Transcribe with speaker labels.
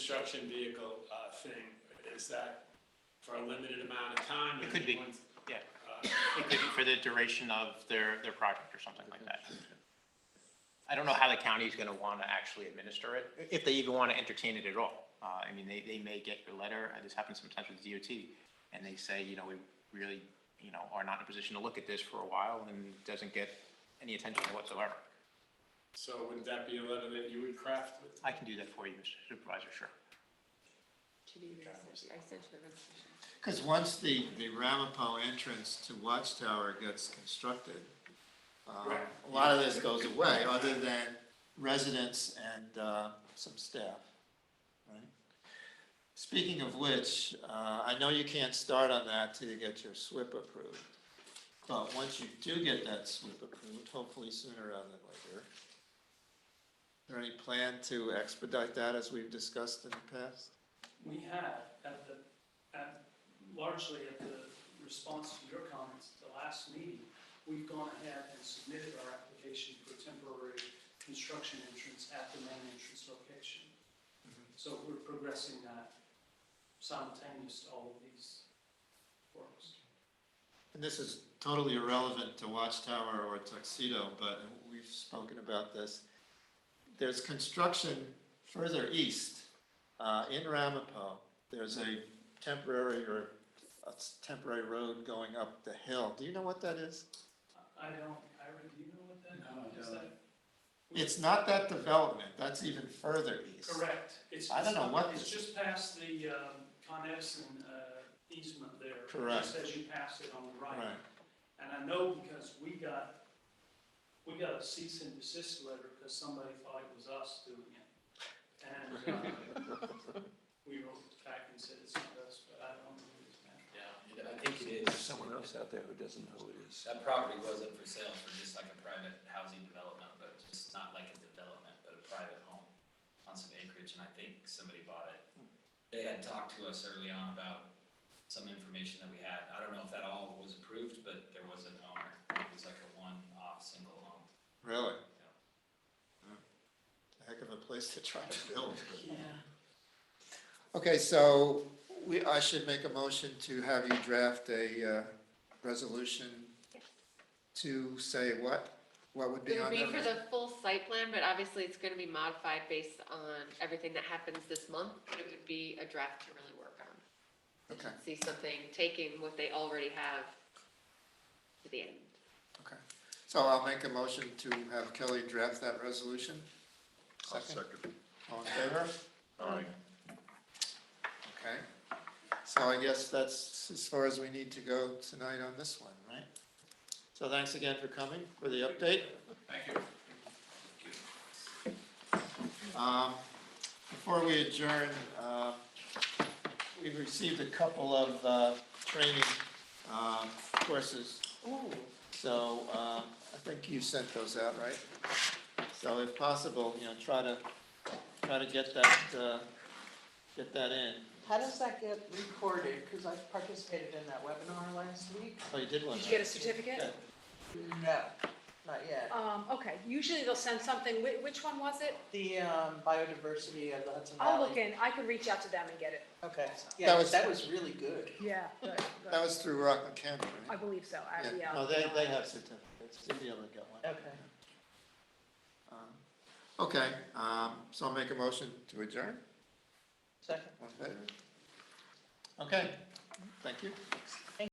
Speaker 1: construction vehicle uh, thing, is that for a limited amount of time?
Speaker 2: It could be.
Speaker 1: Once-
Speaker 2: Yeah,
Speaker 1: uh,
Speaker 2: it could be for the duration of their, their project or something like that. I don't know how the county's gonna wanna actually administer it, if they even wanna entertain it at all. Uh, I mean, they, they may get your letter, uh, this happens sometimes with DOT, and they say, you know, we really, you know, are not in a position to look at this for a while, and it doesn't get any attention whatsoever.
Speaker 1: So would that be a letter that you would craft with?
Speaker 2: I can do that for you, Mr. Supervisor, sure.
Speaker 3: To do the research, I sent you the research.
Speaker 4: Because once the, the Ramapo entrance to Watchtower gets constructed, uh,
Speaker 1: Right.
Speaker 4: a lot of this goes away, other than residents and uh, some staff. right? Speaking of which, uh, I know you can't start on that till you get your SWIP approved. But once you do get that SWIP approved, hopefully sooner rather than later, there any plan to expedite that as we've discussed in the past?
Speaker 5: We have, at the, at, largely at the response to your comments at the last meeting, we've gone ahead and submitted our application for temporary construction entrance at the main entrance location.
Speaker 1: Mm-hmm.
Speaker 5: So we're progressing that simultaneous to all of these works.
Speaker 4: And this is totally irrelevant to Watchtower or Tuxedo, but we've spoken about this. There's construction further east, uh, in Ramapo. There's a temporary or a temporary road going up the hill. Do you know what that is?
Speaker 5: I I don't, Ira, do you know what that?
Speaker 1: No, I
Speaker 5: is that-
Speaker 4: It's not that development. That's even further east.
Speaker 5: Correct. It's-
Speaker 4: I don't know what
Speaker 5: It's
Speaker 4: this-
Speaker 5: just past the um, Con Edison uh, easement there.
Speaker 4: Correct.
Speaker 5: Just as you pass it on the
Speaker 4: Right.
Speaker 5: right. And I know because we got, we got a cease and desist letter because somebody thought it was us doing it. And uh, we wrote back and said it's not us, but I don't know who it's been.
Speaker 6: Yeah, I think it is.
Speaker 7: Someone else out there who doesn't know who it is.
Speaker 6: That property wasn't for sale for just like a private housing development, but just not like a development, but a private home on some acreage, and I think somebody bought it. They had talked to us early on about some information that we had. I don't know if that all was approved, but there was an owner. It was like a one-off single home.
Speaker 4: Really? A Heck of a place to try to build. but- Okay, so we, I should make a motion to have you draft a, uh, resolution to say what, what would be
Speaker 3: It would
Speaker 4: on
Speaker 3: be for
Speaker 4: there?
Speaker 3: the full site plan, but obviously it's gonna be modified based on everything that happens this month, but it would be a draft to really work on.
Speaker 4: Okay,
Speaker 3: See something, taking what they already have to the end.
Speaker 4: okay. So I'll make a motion to have Kelly draft that resolution. Second, all in favor?
Speaker 7: Aye.
Speaker 4: Okay. So I guess that's as far as we need to go tonight on this one, right? So thanks again for coming for the update.
Speaker 6: Thank you.
Speaker 4: Um, Before we adjourn, uh, we've received a couple of uh, training um, courses. So uh, I think you sent those out, right? So if possible, you know, try to, try to get that, uh, get that in.
Speaker 8: How does that get recorded? Because I participated in that webinar last week.
Speaker 4: Oh, you did one.
Speaker 9: Did you get a
Speaker 4: right?
Speaker 9: certificate?
Speaker 8: No, not yet.
Speaker 9: Um, okay, usually they'll send something, Whi- which one was it?
Speaker 8: The um, biodiversity of the Hudson Valley.
Speaker 9: I'll look in, I could reach out to them and get it.
Speaker 8: Okay,
Speaker 4: That
Speaker 8: yeah,
Speaker 4: was-
Speaker 8: that was really good.
Speaker 9: Yeah, good, good.
Speaker 4: That was through Rockland County,
Speaker 9: I
Speaker 4: right?
Speaker 9: believe so, I,
Speaker 4: Yeah.
Speaker 9: yeah.
Speaker 4: No, Oh, they, they have certificates. They'll be able to get one.
Speaker 8: Okay.
Speaker 4: Um, Okay, um, so I'll make a motion to adjourn.
Speaker 8: Second.
Speaker 4: All in favor? Okay, thank you.